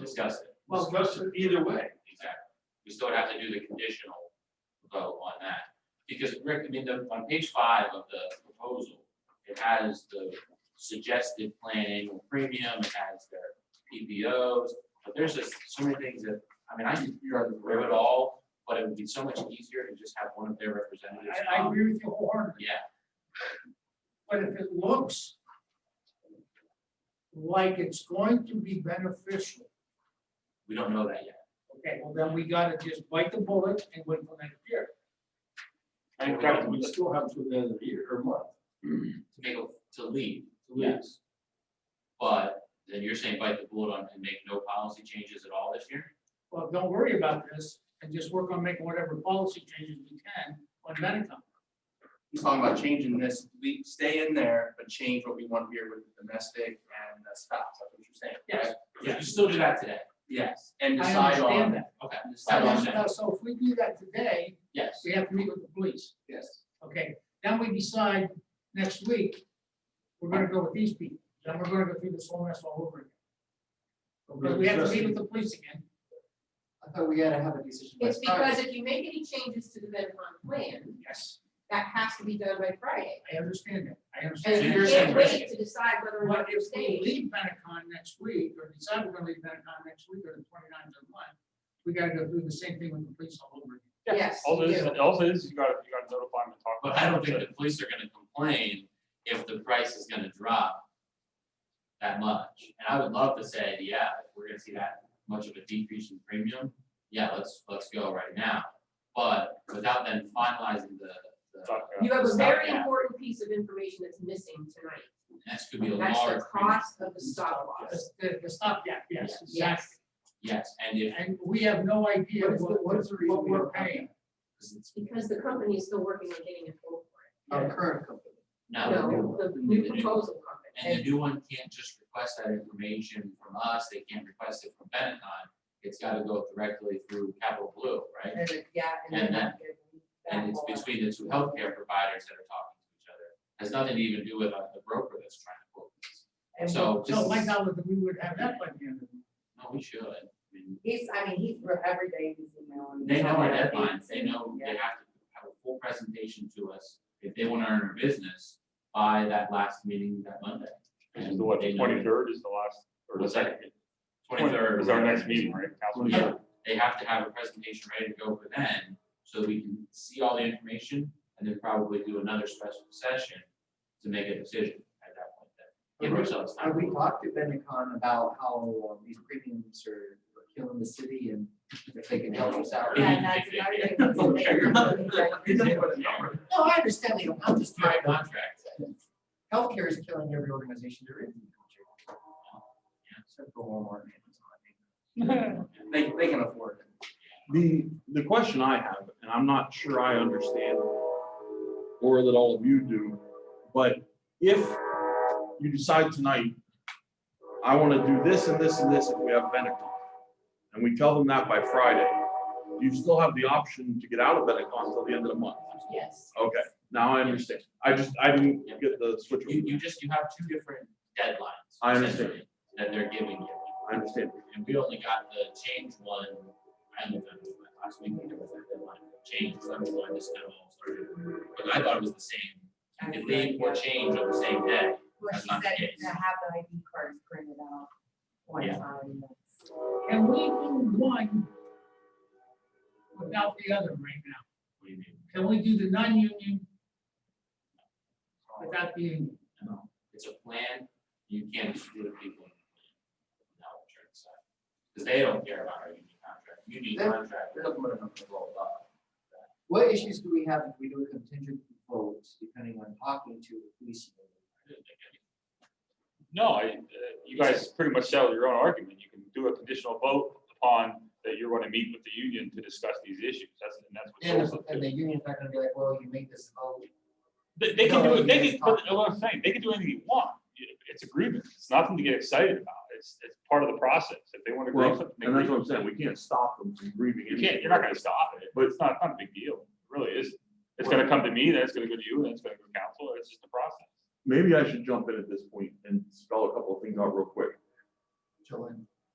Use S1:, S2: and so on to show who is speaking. S1: discuss it.
S2: Well,
S1: Discuss it.
S2: either way,
S1: Exactly. We still would have to do the conditional vote on that. Because Rick, I mean, the- on page five of the proposal, it has the suggested plan annual premium, it has their PBOs. But there's just so many things that, I mean, I can figure out through it all, but it would be so much easier to just have one of their representatives.
S2: I, I
S1: come.
S2: agree with you wholeheartedly,
S1: Yeah,
S2: but if it looks like it's going to be beneficial,
S1: we don't know that yet.
S2: okay, well, then we gotta just bite the bullet and wait for next year.
S1: And we don't-
S3: we still have to the end of the year or month.
S1: To make, a- to leave,
S3: to leave.
S1: Yes. but then you're saying bite the bullet on and make no policy changes at all this year?
S2: Well, don't worry about this and just work on making whatever policy changes we can on Medicom.
S4: He's talking about changing this, we stay in there, but change what we want here with the domestic and the spouse, that's what you're saying.
S2: Yes.
S4: right?
S1: You can still do that today.
S4: Yes, and
S2: I
S4: decide
S2: understand
S4: on,
S2: that.
S1: Okay,
S4: and
S2: So
S4: decide on
S1: understand.
S4: that,
S2: now- So if we do that today,
S1: yes.
S2: we have to meet with the police,
S4: yes.
S2: okay? Then we decide next week, we're gonna go with these people, then we're gonna go through this whole mess all over again. But we have to meet with the police again.
S4: I thought we had to have a decision.
S5: It's because if you make any changes to the Medcom plan,
S2: Yes,
S5: that has to be done by Friday.
S2: I understand that, I
S5: And
S2: understand.
S1: So
S5: you
S1: you're saying
S5: can't
S1: we
S5: wait to decide whether or
S2: What
S5: not you're
S2: if we
S5: staying.
S2: leave Benetcon next week, or decide we're gonna leave Benetcon next week, or the 29th of one, we gotta go through the same thing with the police all over again.
S5: Yes,
S6: All
S5: you
S6: it is,
S5: do.
S6: all it is, you gotta, you gotta notify them and talk.
S1: But I don't think the police are gonna complain if the price is gonna drop that much. And I would love to say, yeah, if we're gonna see that much of a decrease in premium, yeah, let's, let's go right now. But without then finalizing the, the,
S6: Talk about it.
S5: You have a very
S1: Stopgap.
S5: important piece of information that's missing tonight.
S1: that's gonna be a
S5: That's
S1: large
S5: the
S1: premium.
S5: cost of the stop loss.
S2: The- The, the stopgap, yes, exactly.
S5: Yes,
S1: Yes, and if,
S2: And we have no idea
S3: What is the-
S2: what,
S3: what is the reason
S2: what
S3: we
S2: we're
S3: don't have
S2: paying.
S1: because it's,
S5: because the company is still working on getting a quote
S4: Our current company.
S1: no,
S5: for it. No, the new proposal
S1: And the
S5: company.
S1: new one can't just request that information from us, they can't request it from Benetton. It's gotta go directly through Capital Blue, right?
S5: And it- Yeah.
S1: And
S5: then
S1: that- And it's between the two healthcare providers that are talking to each other. Has nothing to even do with uh, the broker that's trying to quote this. So
S2: So my
S1: this is-
S2: knowledge that we would have that by the end of the
S1: No, we should. I mean,
S7: He's, I mean, he's, re- every day he's emailing.
S1: They know our
S7: Yeah.
S1: deadlines, they know they have to have a full presentation to us if they wanna earn their business by that last meeting that Monday.
S6: Which is the what,
S1: They know it.
S6: twenty-third is the last, or the
S1: What's that?
S6: second?
S1: Twenty-third.
S6: Is our next meeting, right? Council
S1: Yeah.
S6: meeting?
S1: they have to have a presentation ready to go for then, so that we can see all the information and then probably do another special session to make a decision at that point then. Give ourselves
S4: Have we
S1: time.
S4: talked to Benetcon about how uh, these premiums are are killing the city and if they can help us out?
S7: Yeah, that's another
S4: Okay, you're not-
S7: thing.
S4: you're not- No, I understand, Leo, I'm just
S1: My
S4: trying,
S1: contract,
S4: healthcare is killing every organization there is. in the country. Except for Walmart and Amazon, I think. They, they can afford it.
S3: The, the question I have, and I'm not sure I understand, or that all of you do, but if you decide tonight, I want to do this and this and this if we have Benetcon, and we tell them that by Friday, you still have the option to get out of Benetcon until the end of the month.
S5: Yes.
S3: Okay, now I understand. I just, I didn't get the switch.
S1: you, you just, you have two different deadlines.
S3: I understand.
S1: essentially, That they're giving you,
S3: I understand.
S1: and we only got the change one, I don't know, last week, we did that deadline, change, so that's why this kind of all started. But I thought it was the same, you could leave or change on the same day.
S7: Well, she said to have the ID cards printed out one
S1: Yeah.
S7: time. that's-
S2: And we do one without the other right now.
S1: What do you mean?
S2: Can we do the non-union without the union?
S1: No, it's a plan, you can't screw the people. in the plan. No, I'm sure it's not. Cause they don't care about our union contract, union
S4: They-
S1: contract,
S4: They're looking at them to blow it up. What issues do we have if we do a contingent vote depending on talking to the police?
S1: I didn't think any-
S6: No, I, uh, you guys pretty much settled your own argument. You can do a conditional vote upon that you're gonna meet with the union to discuss these issues. That's, and that's what.
S4: And,
S6: Joel's up
S4: the-
S6: to.
S4: and the union's not gonna be like, well, you made this vote.
S6: They, they can
S4: No,
S6: do it, they
S4: it's
S6: can, but
S4: not.
S6: what I'm saying, they can do anything you want. It- It's a grievance. It's nothing to get excited about. It's, it's part of the process. If they wanna
S3: Well,
S6: grieve something. they
S3: and that's
S6: grieve.
S3: what I'm saying. We can't stop them from grieving.
S6: You can't, you're not gonna stop it, but it's not, not a big deal, It really is. It's gonna come to me, then it's gonna go to you, then it's gonna go to council, it's just a process.
S3: Maybe I should jump in at this point and spell a couple of things out real quick.
S4: Joanne.